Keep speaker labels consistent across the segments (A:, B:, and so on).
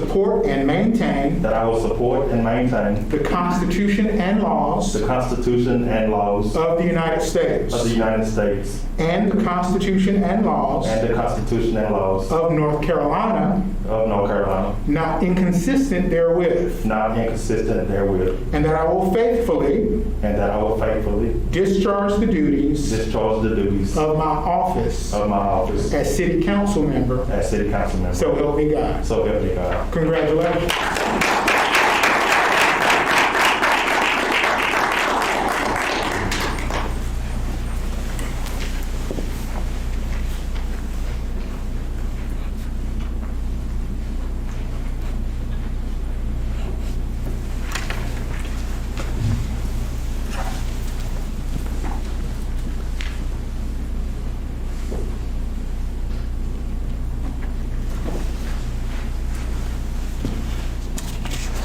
A: support and maintain
B: that I will support and maintain
A: the Constitution and laws
B: the Constitution and laws
A: of the United States
B: of the United States
A: and the Constitution and laws
B: and the Constitution and laws
A: of North Carolina,
B: of North Carolina,
A: not inconsistent therewith,
B: not inconsistent therewith,
A: and that I will faithfully
B: and that I will faithfully
A: discharge the duties
B: discharge the duties of
A: of my office
B: my office
A: as city council member,
B: as city council member.
A: so help me God.
B: So help me God.
A: Congratulations.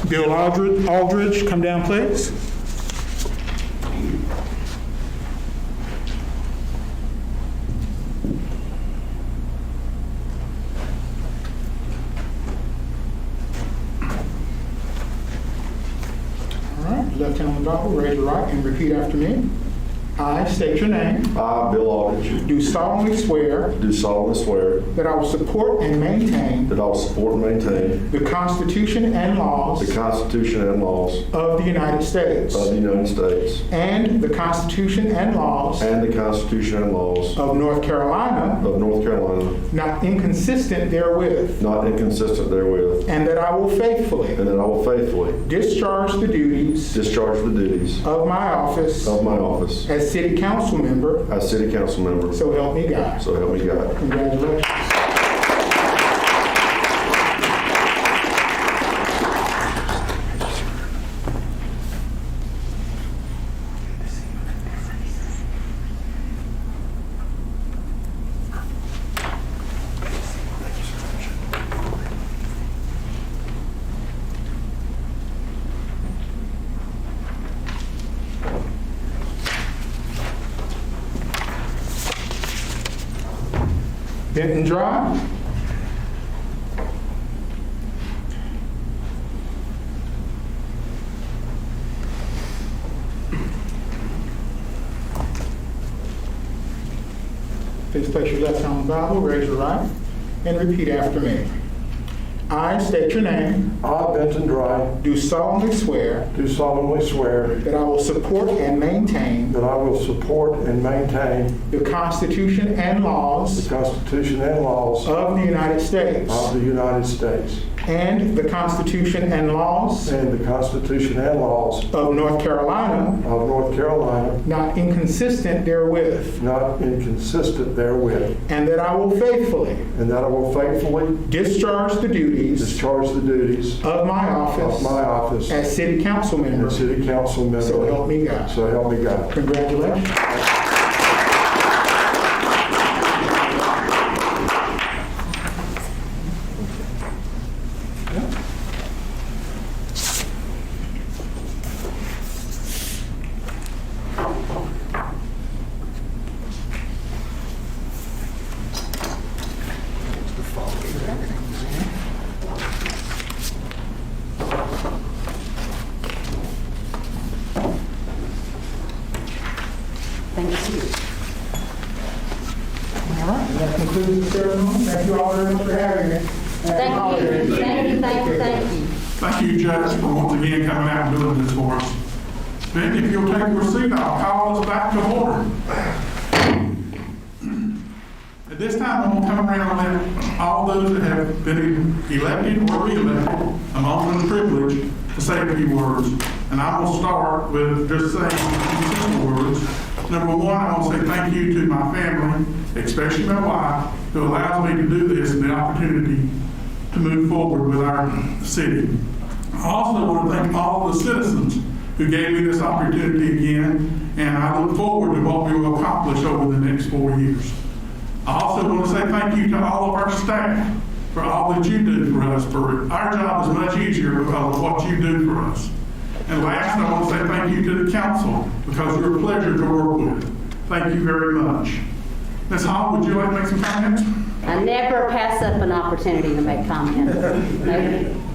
A: Bill Aldridge, Aldridge, come down, please. All right, left hand on the Bible, raise your right, and repeat after me. I state your name,
C: I, Bill Aldridge,
A: do solemnly swear
C: do solemnly swear
A: that I will support and maintain
C: that I will support and maintain
A: the Constitution and
C: the
A: laws
C: Constitution and laws
A: of the United States.
C: of the United States
A: And the Constitution and laws
C: and the Constitution and laws
A: of North Carolina,
C: of North Carolina,
A: not inconsistent therewith,
C: not inconsistent therewith,
A: and that I will faithfully
C: and that I will faithfully
A: discharge the duties
C: discharge the duties
A: of my office
C: of my office
A: as city council member,
C: as city council member.
A: so help me God.
C: So help me God.
A: Congratulations. Benton Drive. Please place your left hand on the Bible, raise your right, and repeat after me. I state your name,
D: I, Benton Dry,
A: do solemnly swear
D: do solemnly swear
A: that I will support and maintain
D: that I will support and maintain
A: the Constitution and
D: the
A: laws
D: Constitution and laws
A: of the United States
D: of the United States
A: and the Constitution and laws
D: and the Constitution and laws
A: of North Carolina,
D: of North Carolina,
A: not inconsistent therewith,
D: not inconsistent therewith,
A: and that I will faithfully
D: and that I will faithfully
A: discharge the duties
D: discharge the duties
A: of my
D: of my
A: office
D: office
A: as city council member.
D: and city council member.
A: So help me God.
D: So help me God.
A: Congratulations.
E: Thank you.
A: All right, that concludes the ceremony. Thank you all very much for having me.
E: Thank you, thank you, thank you, thank you.
F: Thank you, Judge, for once again coming out and doing this for us. Then if you'll take your seat, I'll call us back to order. At this time, I'm gonna come around and let all those that have been elected or re-elected, I'm honored and privileged to say a few words. And I will start with just saying two words. Number one, I want to say thank you to my family, especially my wife, who allows me to do this and the opportunity to move forward with our city. I also want to thank all the citizens who gave me this opportunity again, and I look forward to what we will accomplish over the next four years. I also want to say thank you to all of our staff for all that you do for us. For our job is much easier because of what you do for us. And last, I want to say thank you to the council because you're a pleasure to work with. Thank you very much. Ms. Hall, would you like to make some comments?
E: I never pass up an opportunity to make comments. No,